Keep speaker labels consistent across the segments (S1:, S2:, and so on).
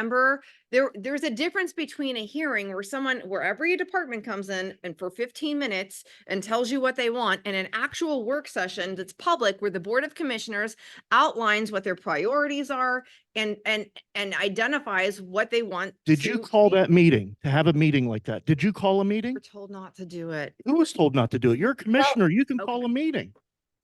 S1: remember, there, there's a difference between a hearing where someone, where every department comes in and for fifteen minutes and tells you what they want, and an actual work session that's public where the Board of Commissioners outlines what their priorities are and, and, and identifies what they want.
S2: Did you
S1: to
S2: call
S1: be-
S2: that meeting to have a meeting like that? Did you call a meeting?
S1: We're told not to do it.
S2: Who was told not to do it? You're a commissioner. You can call
S1: okay.
S2: a meeting.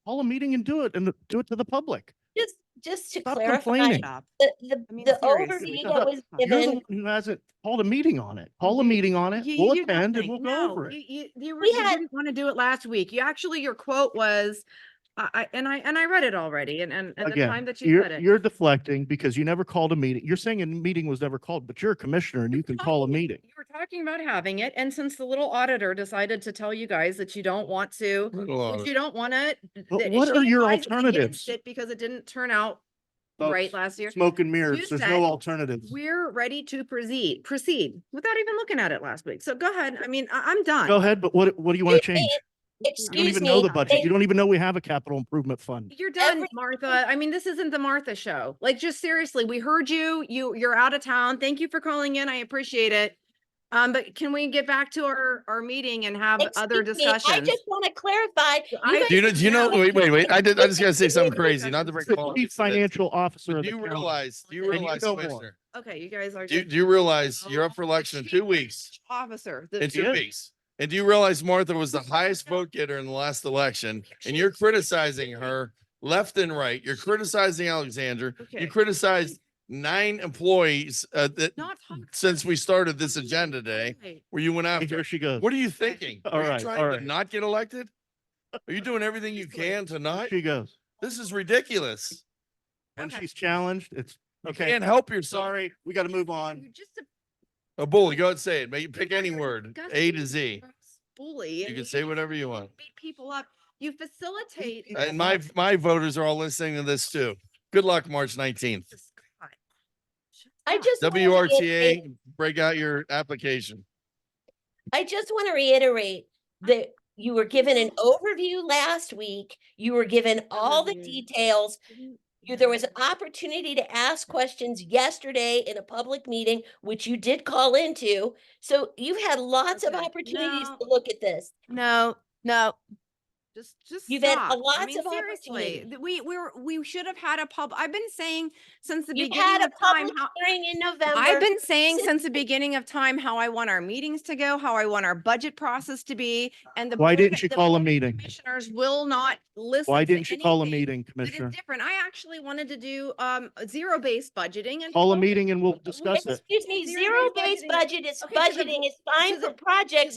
S2: Call a meeting and do it and do it to the public.
S3: Just, just to
S2: Stop
S3: clarify,
S2: complaining.
S1: Stop.
S3: the, the,
S1: I mean,
S3: the
S1: seriously,
S3: overview that was
S2: You're the one
S3: given,
S2: who hasn't called a meeting on it. Call a meeting on it.
S1: You-
S2: We'll
S1: you did
S2: attend and we'll
S1: nothing.
S2: go
S1: No,
S2: over it.
S1: You, you, you were-
S3: We
S1: you
S3: had-
S1: didn't want to do it last week. You actually, your quote was, I, I, and I, and I read it already and, and, and the time
S2: Again,
S1: that you said
S2: you're,
S1: it.
S2: you're deflecting because you never called a meeting. You're saying a meeting was never called, but you're a commissioner and you can call a meeting.
S1: You were talking about having it, and since the little auditor decided to tell you guys that you don't want to, that you don't want to.
S2: But what are your alternatives?
S1: Because it didn't turn out
S2: Folks,
S1: right last year.
S2: Smoke and
S1: You
S2: mirrors. There's
S1: said
S2: no alternatives.
S1: We're ready to proceed, proceed without even looking at it last week. So go ahead. I mean, I, I'm done.
S2: Go ahead, but what, what do you want to
S3: They- they-
S2: change? You don't
S3: excuse
S2: even know
S3: me,
S2: the budget.
S3: they-
S2: You don't even know we have a capital improvement fund.
S1: You're done,
S3: Every-
S1: Martha. I mean, this isn't the Martha show. Like, just seriously, we heard you. You, you're out of town. Thank you for calling in. I appreciate it. Um, but can we get back to our, our meeting and have other
S3: excuse me, I
S1: discussions?
S3: just want to clarify, you
S1: I-
S3: guys-
S4: Do you know, do you know,
S1: No.
S4: wait, wait, wait, I did, I just gotta say something
S1: Wait,
S4: crazy,
S1: wait,
S4: not to
S1: wait.
S4: break.
S2: The
S4: politics,
S2: Chief
S4: but
S2: financial officer of
S4: Do
S2: the
S4: you
S2: county.
S4: realize, do
S1: And
S4: you
S1: you
S4: realize,
S2: know more.
S4: Commissioner,
S1: Okay, you guys are.
S4: do, you-
S1: just-
S4: do you realize you're up for
S1: No,
S4: election in
S1: she
S4: two
S1: was
S4: weeks,
S1: Officer. the-
S4: in two
S2: is.
S4: weeks? And do you realize Martha was the highest vote getter in the last election and you're criticizing her left and right? You're criticizing Alexander.
S1: Okay.
S4: You criticized nine employees, uh, that,
S1: Not talking
S4: since we started this agenda day,
S1: today.
S4: where you went
S2: Here
S4: after.
S2: she goes.
S4: What are you thinking?
S2: All
S4: Are you
S2: right, all
S4: trying
S2: right.
S4: to not get elected? Are you doing everything you can to not?
S2: She goes.
S4: This is ridiculous.
S2: When
S1: Okay.
S2: she's challenged, it's, okay,
S4: Can't help yourself.
S2: sorry, we got to move on.
S1: You're just a
S4: A Oh, bully, go ahead and say it. Make you um, pick any
S1: You're
S4: word, A
S1: disgusting
S4: to Z.
S1: gross Bully.
S4: You
S1: and
S4: can say
S1: just
S4: whatever you want.
S1: Beat people up. You facilitate.
S2: people
S4: And my, my voters are all listening to this too. Good luck, March nineteenth.
S1: Jesus Christ.
S3: I just. wanna reiterate-
S4: WRTA, break out your application.
S3: I just want to reiterate that you were given an overview last week. You were given all the
S1: Overview.
S3: details. You, there was an opportunity to ask questions yesterday in a public meeting, which you did call into. So you had lots of
S1: Okay,
S3: opportunities
S1: now-
S3: to look at this.
S1: No, no. Just, just.
S3: You've had a
S1: stop. I
S3: lots
S1: mean,
S3: of
S1: seriously,
S3: opportunity.
S1: th- We, we were, we should have had a pub, I've been saying since the
S3: You
S1: beginning
S3: had a
S1: of time,
S3: public
S1: how,
S3: hearing in November.
S1: I've been saying
S3: since
S1: since the beginning of time how I want our meetings to go, how I want our budget process to be, and the.
S2: Why
S1: Board
S2: didn't
S1: of-
S2: you
S1: the
S2: call a
S1: Board of
S2: meeting?
S1: Commissioners will not listen.
S2: Why
S1: to
S2: didn't you call a
S1: anything
S2: meeting,
S1: That is
S2: Commissioner?
S1: different. I actually wanted to do, um, zero-based budgeting and.
S2: Call a
S1: focus
S2: meeting and we'll discuss it.
S3: Excuse me,
S1: Zero-based
S3: zero-based budget is
S1: Okay, because of-
S3: budgeting is
S1: because
S3: fine for
S1: of-
S3: projects,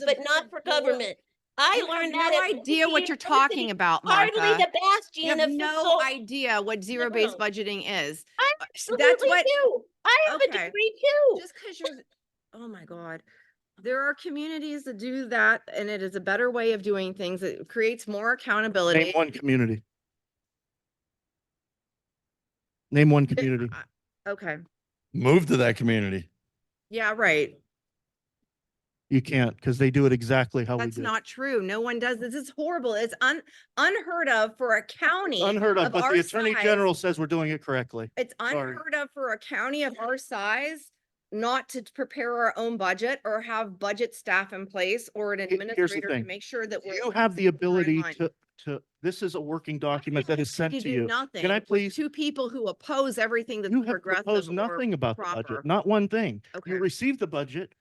S1: because of
S3: but
S1: the
S3: not for
S1: bullet-
S3: government. I
S1: You have
S3: learned that. at
S1: No idea what
S3: Liberty
S1: you're talking
S3: University,
S1: about,
S3: Hardly
S1: Martha.
S3: the
S1: You
S3: bastion
S1: have
S3: of.
S1: no
S3: fiscal-
S1: idea what zero-based
S3: No.
S1: budgeting is.
S3: I
S1: Uh, s- That's
S3: Absolutely
S1: what,
S3: do. I have a
S1: Okay.
S3: degree too.
S1: just because you're, oh my God. There are communities that do that and it is a better way of doing things. It creates more accountability.
S2: Name one community. Name one
S1: Th-
S2: community.
S1: I- Okay,
S4: Move to that community.
S1: yeah, right.
S2: You can't because they do it exactly how we
S1: That's
S2: do.
S1: not true. No one does. This is horrible. It's un, unheard of for a
S2: it.
S1: county.
S2: Unheard of,
S1: of
S2: but
S1: our
S2: the Attorney
S1: size-
S2: General says we're doing it correctly.
S1: It's
S2: Sorry.
S1: unheard of for a county of our size not to prepare our own budget or have budget staff in place or an
S2: the
S1: administrator to
S2: thing.
S1: make sure that. we're
S2: You have the ability
S1: line.
S2: to, to, this is a working document that is sent
S1: You
S2: to
S1: do
S2: you.
S1: Nothing.
S2: Can I
S1: with
S2: please?
S1: Two people who oppose everything that's
S2: You have
S1: progressive.
S2: proposed
S1: or-
S2: nothing about the budget,
S1: proper.
S2: not one thing.
S1: Okay.
S2: You received the budget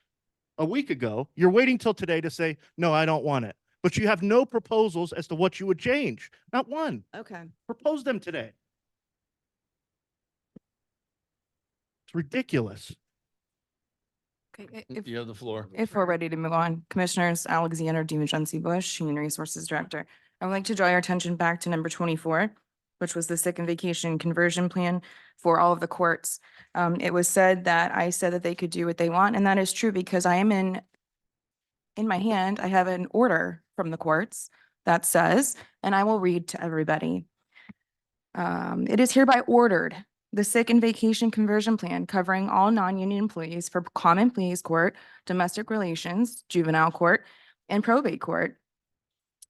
S2: a week ago. You're waiting till today to say, no, I don't want it. But you have no proposals as to what you would change, not one.
S1: Okay.
S2: Propose them today. It's ridiculous.
S5: Okay, i- If,
S4: You have the floor.
S5: if we're ready to move on, Commissioners Alexander Demajency Bush, Human Resources Director. I would like to draw your attention back to number twenty-four, which was the sick and vacation conversion plan for all of the courts. Um, it was said that I said that they could do what they want, and that is true because I am in, in my hand, I have an order from the courts that says, and I will read to everybody. Um, it is hereby ordered the sick and vacation conversion plan covering all non-union employees for common pleas court, domestic relations, juvenile court, and probate court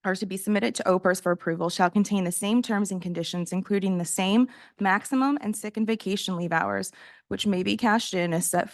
S5: are to be submitted to OPERS for approval shall contain the same terms and conditions, including the same maximum and sick and vacation leave hours, which may be cashed in as set